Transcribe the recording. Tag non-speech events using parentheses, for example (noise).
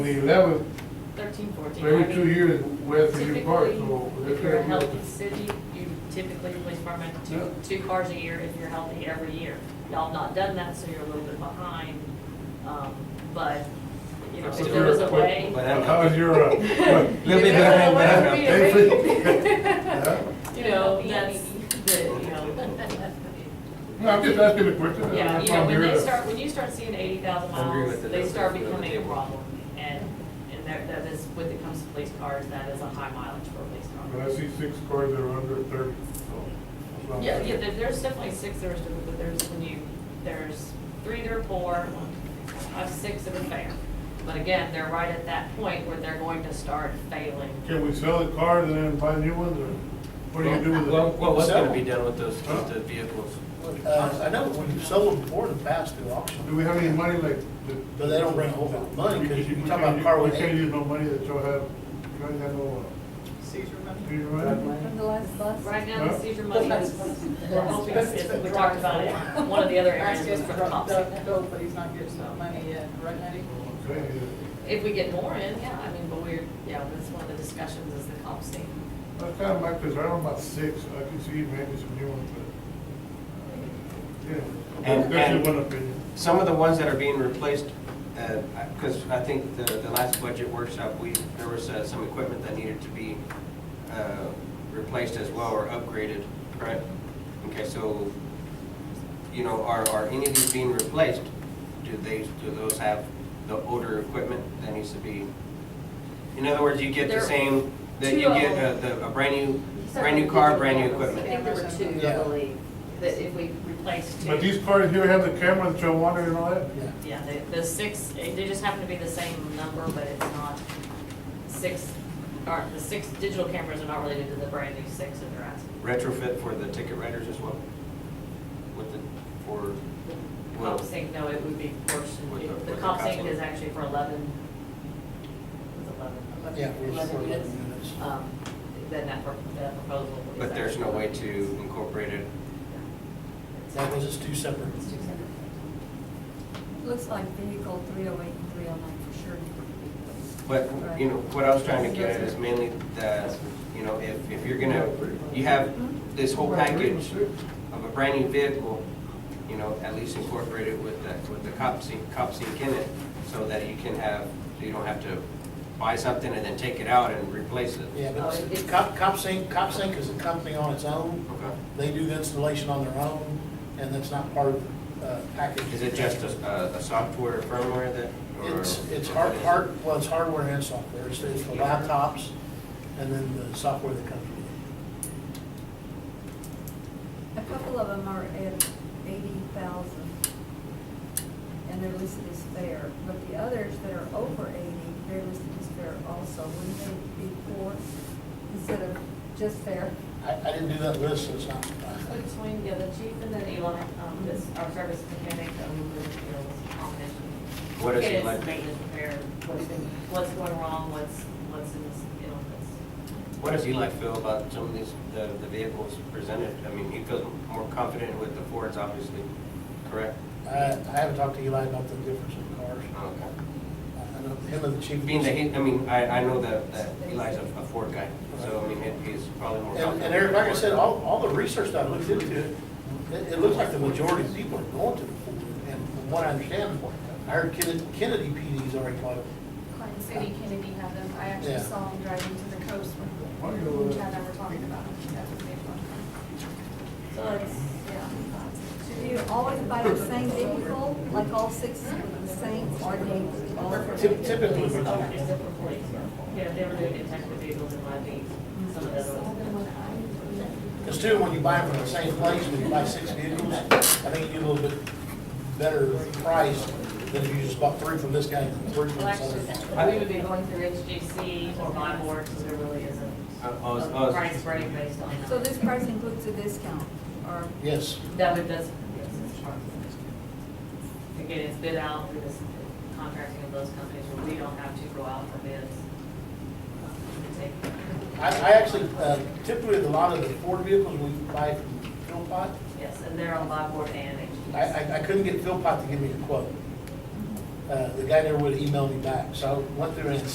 The eleventh, Thirteen, fourteen. every two years, we have to do parts, so Typically, that's if you're a gonna healthy be. city, you typically, police department, Yeah. two, two cars a year if you're healthy every year. Y'all have not done that, so you're a little bit behind, um, but, you know, if there was a way. But- How's your, uh, what? (laughs) if Little bit there was a way behind, but I'm for me to not (laughs) (laughs) make- Yeah? You know, that's, the, you know. No, I'm just asking a question. that's Yeah, why you know, I'm when here they to- start, when you start seeing eighty thousand I agree miles, with the they numbers stable. start being on the becoming a table. problem. And, and that, that is, when it comes to police cars, that is a high mileage for a police But I car. see six cars that are under thirty, so. that's what I'm Yeah, yeah, saying. there- there's definitely six that are stupid, but there's when you, there's three that are poor, I've six that are fair. But again, they're right at that point where they're going to start failing. Can we sell the cars and then buy new ones, or what do you do with it? Well, well, what's Sell gonna them. be done with those, with the vehicles? Uh, I know when you sold them before, in the past through Do auction, we have any money like? the- but they don't bring a whole lot of money, because We you can't talk about a use- car with We can't eight. use no money that y'all have, you guys have no, Caesar uh, money. do you remember? From the last bus? Right now, the Huh? seizure money is, we're hoping, is- we talked about it, one of the other areas was for the top secret. Bill, but he's not getting that money yet, right, Eddie? Okay, If we get more in, yeah, I mean, but we're, yeah, that's one of the discussions is the comp state. That's kind of my concern, I'm about six, I can see maybe some new ones, but. uh, Yeah, And- that's and- just one opinion. Some of the ones that are being replaced, because I think the, the last budget workshop, we, there was uh, some equipment that needed to be uh, replaced as well or upgraded, right? Okay, so, you know, are, are any of these being replaced? Do they, do those have the older equipment that needs to be? In other words, you get the They're same, that two you get of a, the- a brand new, brand new car, brand new I equipment. think there were two, I Yeah. believe. That if we replace two. But these cars here have the camera that y'all wanted and all that? Yeah. Yeah, the, the six, they just happen to be the same number, but it's not six, or the six digital cameras are not related to the brand new six that they're asking. retrofit for the ticket writers as well? With the, for, The well, Comp sync, no, it would be With portion, the- the with the comp sync custom. is actually for eleven, it was eleven. Yeah, we're just for Eleven eleven units. units. Um, then that, pro- that proposal is. but there's no actually- way to incorporate it. That was just two separate. It's two separate. Looks like vehicle three oh eight and three oh nine for sure. But, you know, what I was trying to get at is mainly the, you know, if, if you're gonna, you have this whole package of a brand new vehicle, you know, at least incorporate it with that, with the cop sync, cop sync in it, so that you can have, so you don't have to buy something and then take it out and replace it. Yeah, but Cop, Cop Sync, Cop Sync is a company on its own. Okay. They do the installation on their own, and that's not part of the uh, package. Is it just a, a- a software or firmware that? or- It's, it's hard, hard, well, it's hardware and software. It's, it's the laptops and then the software that comes with A couple of them are at eighty thousand, and they're listed as fair, but the others that are over eighty, they're listed as fair also, wouldn't they be four instead of just fair? it. I, I didn't do that list, so it's not. Split Between, yeah, the chief and then Eli, um, this, our service mechanic, um, is, you know, on mission. What is It he like? Maintenance repair, what's, what's going wrong, what's, what's in this, you know, what's. What does Eli feel about some of these, the, the vehicles presented? I mean, he feels more confident with the Fords, obviously, correct? I, I haven't talked to Eli about the difference in cars. Okay. I know him and the chief. Being that he, I mean, I, I know that, that Eli's a a Ford guy, so I mean, he- he's probably more And confident. and Eric, like I said, all, all the research that I looked into, it, it looks like the majority of people are going to the pool. And from what I understand, I heard Kennedy, Kennedy PD's already bought it. Clinton City, Kennedy had them, I actually Yeah. saw them driving to the coast Why when do you- uh, when Chad and I were talking about them. That was made fun So it's, of. Yeah. do you always buy the same vehicle, like all six of the same, or they all? Typ- Typically, Police, oh, but- except for police. Yeah, they were doing detective vehicles and live beats, some of those. because too, when you buy them from the same place, when you buy six vehicles, I think you get a little bit better price than if you just bought three from this guy and three from Well, this actually, other. we would be going through HGC or my board, because there really isn't Uh, I was- I a was- price break based on that. So this price includes a discount, or? Yes, That would, that's, yes, it's part of it. Again, it's bid out through this contracting of those companies where we don't have to go out for bids. We take- I, I actually, uh, typically, a lot of the Ford vehicles we buy from Philpott, Yes, and they're on my board and I, HGC. I, I couldn't get Philpott to give me a quote. uh, the guy there would email me back. So I went through and